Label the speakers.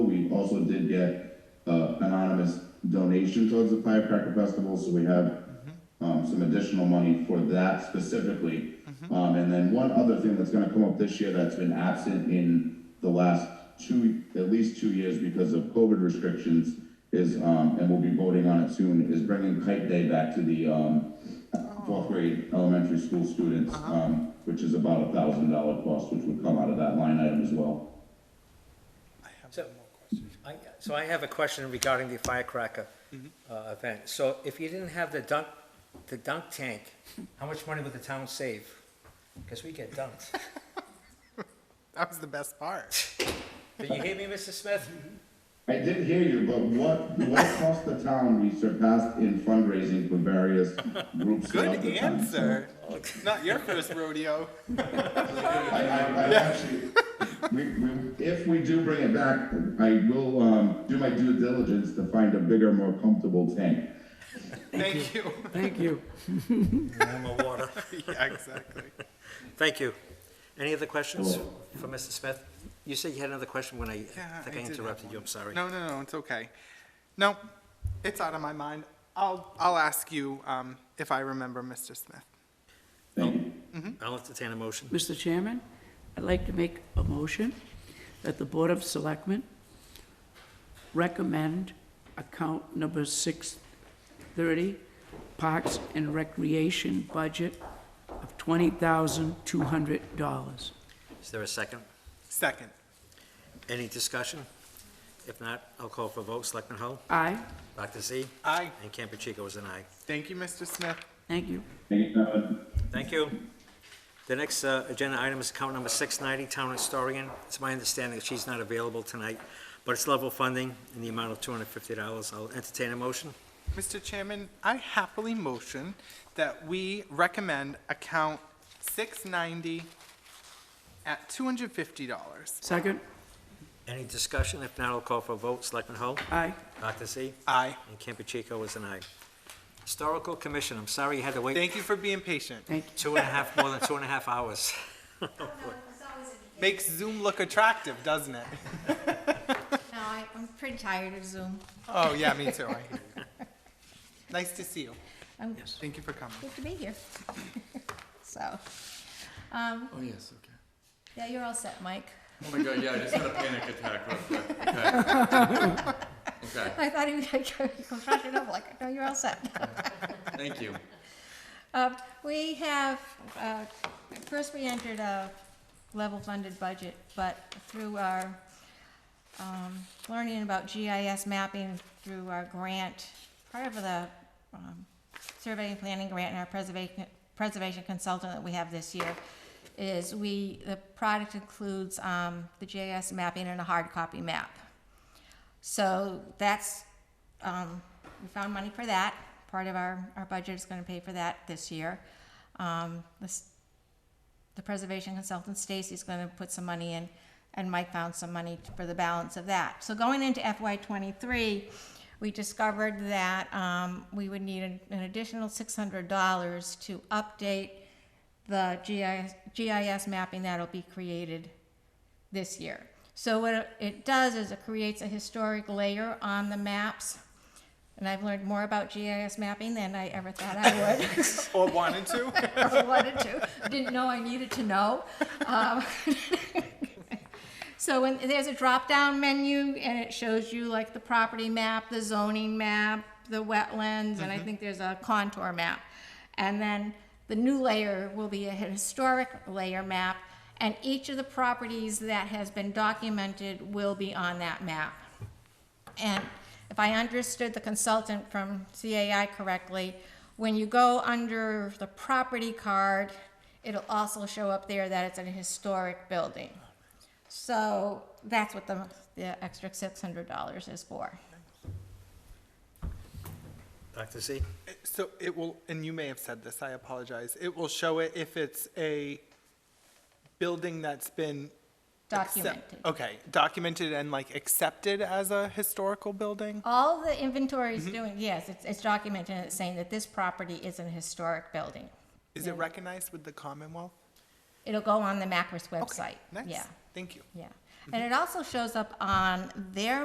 Speaker 1: also did get, uh, anonymous donation towards the firecracker festival, so we have, um, some additional money for that specifically. Um, and then one other thing that's gonna come up this year that's been absent in the last two, at least two years because of COVID restrictions is, um, and we'll be voting on it soon, is bringing kite day back to the, um, fourth grade elementary school students, um, which is about a thousand dollar cost, which would come out of that line item as well.
Speaker 2: So, I, so I have a question regarding the firecracker, uh, event. So if you didn't have the dunk, the dunk tank, how much money would the town save? Because we get dunked.
Speaker 3: That was the best part.
Speaker 2: Did you hear me, Mr. Smith?
Speaker 1: I did hear you, but what, what cost the town we surpassed in fundraising for various groups throughout
Speaker 3: Good
Speaker 1: the town?
Speaker 3: answer. Not your first rodeo.
Speaker 1: I, I, I actually, we, we, if we do bring it back, I will, um, do my due diligence to find a bigger, more comfortable tank.
Speaker 3: Thank you.
Speaker 4: Thank you.
Speaker 2: I'm a water.
Speaker 3: Yeah, exactly.
Speaker 2: Thank you. Any other questions
Speaker 1: Hello.
Speaker 2: for Mr. Smith? You said you had another question when I, I
Speaker 3: Yeah,
Speaker 2: think
Speaker 3: I
Speaker 2: I
Speaker 3: did have
Speaker 2: interrupted you, I'm sorry.
Speaker 3: No, no, no, it's okay. No, it's out of my mind. I'll, I'll ask you um, if I remember, Mr. Smith.
Speaker 1: Thank
Speaker 3: Oh.
Speaker 1: you.
Speaker 2: I'll entertain a motion.
Speaker 4: Mr. Chairman, I'd like to make a motion that the Board of Selectmen recommend account number 630, Parks and Recreation budget of $20,200.
Speaker 2: Is there a second?
Speaker 3: Second.
Speaker 2: Any discussion? If not, I'll call for a vote. Selectman Hull?
Speaker 4: Aye,
Speaker 2: Dr. Z?
Speaker 3: Aye.
Speaker 2: And Campuchico is an aye.
Speaker 3: Thank you, Mr. Smith.
Speaker 4: thank you.
Speaker 1: Thank you, Kevin.
Speaker 2: Thank you. The next uh, agenda item is account number 690, Town Historian. It's my understanding that she's not available tonight, but it's level funding in the amount of $250. I'll entertain a motion.
Speaker 3: Mr. Chairman, I happily motion that we recommend account 690 at $250.
Speaker 4: Second?
Speaker 2: Any discussion? If not, I'll call for a vote. Selectman Hull?
Speaker 4: Aye.
Speaker 2: Dr. Z?
Speaker 3: Aye.
Speaker 2: And Campuchico is an aye. Historical Commission, I'm sorry you had to wait
Speaker 3: Thank you for being patient.
Speaker 4: Thank you.
Speaker 2: two and a half, more than two and a half hours.
Speaker 3: Makes Zoom look attractive, doesn't it?
Speaker 5: No, I, I'm pretty tired of Zoom.
Speaker 3: Oh, yeah, me too. I hear you. Nice to see you.
Speaker 5: I'm
Speaker 3: Thank you for coming.
Speaker 5: good to be here. So, um,
Speaker 6: Oh, yes, okay.
Speaker 5: yeah, you're all set, Mike.
Speaker 6: Oh my god, yeah, I just had a panic attack real quick. Okay. Okay,
Speaker 5: I thought he was like, freshen up, like, no, you're all set.
Speaker 6: thank you.
Speaker 5: Uh, We have, uh, first we entered a level funded budget, but through our um, learning about GIS mapping through our grant, part of the um, survey and planning grant and our preservation, preservation consultant that we have this year is we, the product includes um, the GIS mapping and a hard copy map. So that's, um, we found money for that. Part of our, our budget is gonna pay for that this year. Um, this, the preservation consultant Stacy's gonna put some money in, and Mike found some money for the balance of that. So going into FY twenty-three, we discovered that, um, we would need an, an additional six hundred dollars to update the GIS, GIS mapping that'll be created this year. So what it- it does is it creates a historic layer on the maps. And I've learned more about GIS mapping than I ever thought I would.
Speaker 3: Or wanted to?
Speaker 5: I wanted to, didn't know I needed to know. Um, So when, there's a drop-down menu, and it shows you like the property map, the zoning map, the wetlands, and I think there's a contour map. And then the new layer will be a historic layer map, and each of the properties that has been documented will be on that map. And if I understood the consultant from CAI correctly, when you go under the property card, it'll also show up there that it's an historic building. So that's what the, the extra six hundred dollars is for.
Speaker 2: Dr. Z?
Speaker 3: So it will, and you may have said this, I apologize. It will show it if it's a building that's been. accept-
Speaker 5: Documented.
Speaker 3: Okay, documented and like accepted as a historical building?
Speaker 5: All the inventory
Speaker 3: Mm-hmm.
Speaker 5: is doing, yes, it's, it's documented, and it's saying that this property is an historic building.
Speaker 3: Is it recognized with the Commonwealth?
Speaker 5: It'll go on the MACRIS
Speaker 3: Okay,
Speaker 5: website.
Speaker 3: Nice, Mm-hmm.
Speaker 5: Yeah,
Speaker 3: thank you.
Speaker 5: yeah. And it also shows up on their